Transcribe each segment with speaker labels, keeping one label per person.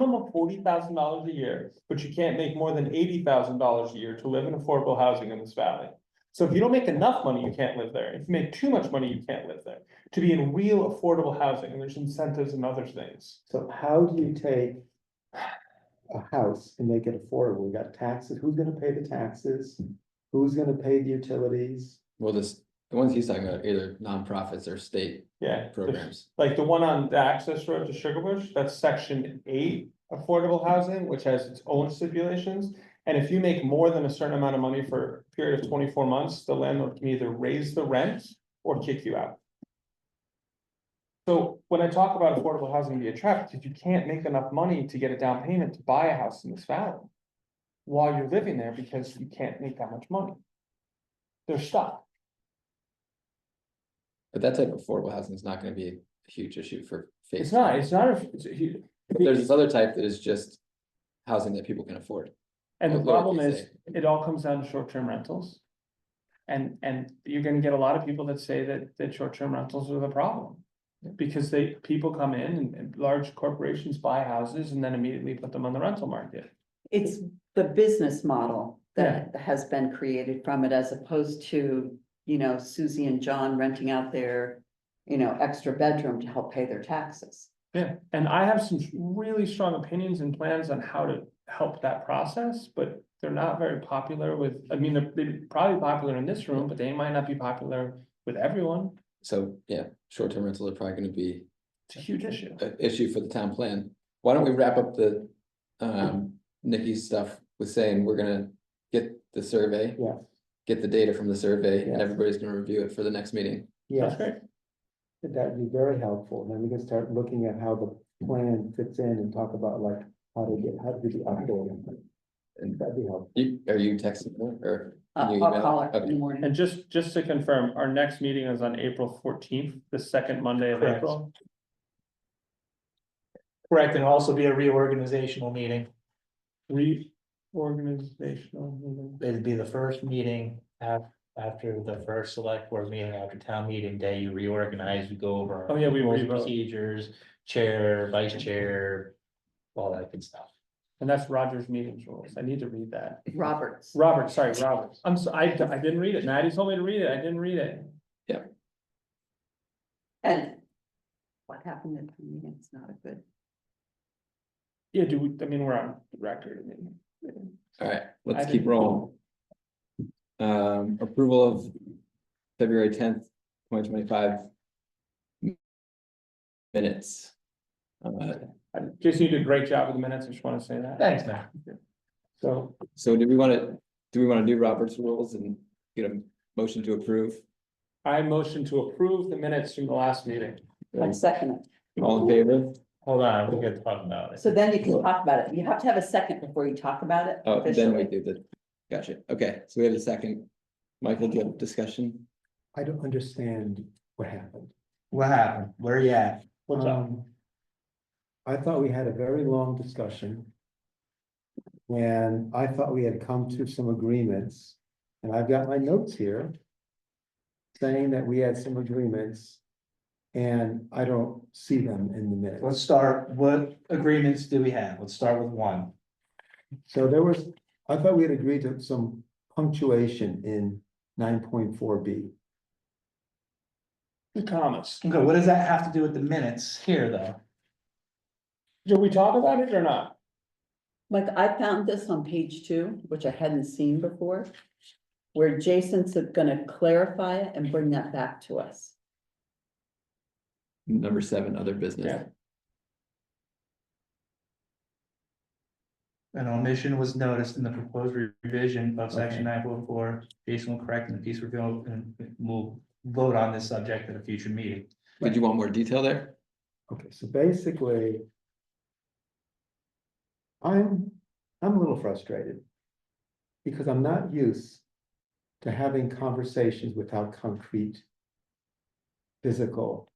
Speaker 1: minimum of forty thousand dollars a year, but you can't make more than eighty thousand dollars a year to live in affordable housing in this valley. So if you don't make enough money, you can't live there. If you make too much money, you can't live there. To be in real affordable housing, there's incentives and other things.
Speaker 2: So how do you take a house and make it affordable? We got taxes, who's gonna pay the taxes? Who's gonna pay the utilities?
Speaker 3: Well, this, the ones he's talking about, either nonprofits or state
Speaker 1: Yeah. the-
Speaker 3: programs.
Speaker 1: Like the one on the access road to Sugar Bush, that's section eight affordable housing, which has its own stipulations. And if you make more than a certain amount of money for a period of twenty-four months, the landlord can either raise the rent or kick you out. So when I talk about affordable housing be attractive, you can't make enough money to get a down payment to buy a house in this valley. While you're living there because you can't make that much money. They're stuck.
Speaker 3: But that type of affordable housing is not gonna be a huge issue for. phase
Speaker 1: It's not,
Speaker 3: one.
Speaker 1: it's not, a- it's a huge.
Speaker 3: But There's this other type that is just housing that people can afford.
Speaker 1: And the
Speaker 3: Lower
Speaker 1: problem
Speaker 3: East
Speaker 1: is, it all comes down to short-term rentals. And, and you're gonna get a lot of people that say that, that short-term rentals are the problem. Because they, people come in and, and large corporations buy houses and then immediately put them on the rental market.
Speaker 4: It's the business model that has been created from it as opposed to, you know, Susie and John renting out their, you know, extra bedroom to help pay their taxes.
Speaker 1: Yeah. And I have some really strong opinions and plans on how to help that process, but they're not very popular with, I mean, they're, they're probably popular in this room, but they might not be popular with everyone.
Speaker 3: So, yeah, short-term rentals are probably gonna be
Speaker 1: It's a huge issue.
Speaker 3: an issue for the town plan. Why don't we wrap up the um Nikki's stuff with saying we're gonna get the survey?
Speaker 2: Yeah.
Speaker 3: Get the data from the survey and
Speaker 2: Yeah.
Speaker 3: everybody's gonna review it for the next meeting.
Speaker 1: That's
Speaker 2: Yes,
Speaker 1: great.
Speaker 2: that'd be very helpful. Then we can start looking at how the plan fits in and talk about like how to get, how to do the updating. And that'd be helpful.
Speaker 3: You, are you texting her or?
Speaker 4: Uh,
Speaker 3: Can you
Speaker 4: I'll
Speaker 3: email?
Speaker 4: call her in
Speaker 3: Okay.
Speaker 4: the morning.
Speaker 1: And just, just to confirm, our next meeting is on April fourteenth, the second Monday of
Speaker 5: Correct.
Speaker 1: April.
Speaker 5: Correct, and also be a reorganizational meeting.
Speaker 1: Reorganizational meeting.
Speaker 5: It'd be the first meeting af- after the first select board meeting, after town meeting day, you reorganize, you go over.
Speaker 1: Oh, yeah, we
Speaker 5: rules,
Speaker 1: revote.
Speaker 5: Procedures, chair, vice chair, all that good stuff.
Speaker 1: And that's Roger's meetings rules. I need to read that.
Speaker 4: Roberts.
Speaker 1: Robert, sorry, Robert. I'm so, I, I didn't read it. Maddie told me to read it. I didn't read it.
Speaker 4: And what happened at the meeting? It's not a good.
Speaker 1: Yeah, do we, I mean, we're on record. I mean,
Speaker 3: All right,
Speaker 1: I
Speaker 3: let's
Speaker 1: didn't-
Speaker 3: keep rolling. Um, approval of February tenth, twenty twenty-five. Minutes. Uh,
Speaker 1: I- Jason, you did a great job with the minutes. I just want to say that.
Speaker 5: Thanks, man.
Speaker 1: So
Speaker 3: so do we wanna, do we wanna do Robert's rules and get a motion to approve?
Speaker 1: I motion to approve the minutes from the last meeting.
Speaker 4: One second.
Speaker 3: All in favor?
Speaker 5: Hold on, we're gonna talk about it.
Speaker 4: So then you can talk about it. You have to have a second before you talk about it.
Speaker 3: Oh, then we
Speaker 4: officially.
Speaker 3: do the, gotcha, okay, so we have a second. Michael, do you have a discussion?
Speaker 2: I don't understand what happened.
Speaker 5: What happened? Where you at?
Speaker 1: What's up?
Speaker 2: Um, I thought we had a very long discussion. And I thought we had come to some agreements, and I've got my notes here. Saying that we had some agreements. And I don't see them in the minutes.
Speaker 5: Let's start, what agreements do we have? Let's start with one.
Speaker 2: So there was, I thought we had agreed to some punctuation in nine point four B.
Speaker 1: The commas.
Speaker 5: Okay, what does that have to do with the minutes here, though?
Speaker 1: Did we talk about it or not?
Speaker 4: Like, I found this on page two, which I hadn't seen before, where Jason's gonna clarify it and bring that back to us.
Speaker 3: Number seven, other
Speaker 1: Yeah.
Speaker 3: business.
Speaker 5: An omission was noticed in the proposed revision of section nine point four. Jason will correct and the piece revealed and we'll vote on this subject at a future meeting.
Speaker 3: Did you want more detail there?
Speaker 2: Okay, so basically. I'm, I'm a little frustrated. Because I'm not used to having conversations without concrete. Physical.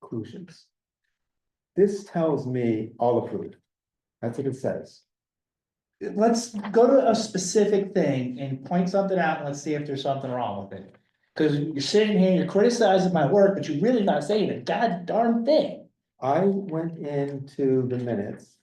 Speaker 2: Conclusions. This tells me all approved. That's what it says.
Speaker 5: Let's go to a specific thing and point something out and let's see if there's something wrong with it. Cause you're sitting here, you're criticizing my work, but you're really not saying a god darn thing.
Speaker 2: I went into the minutes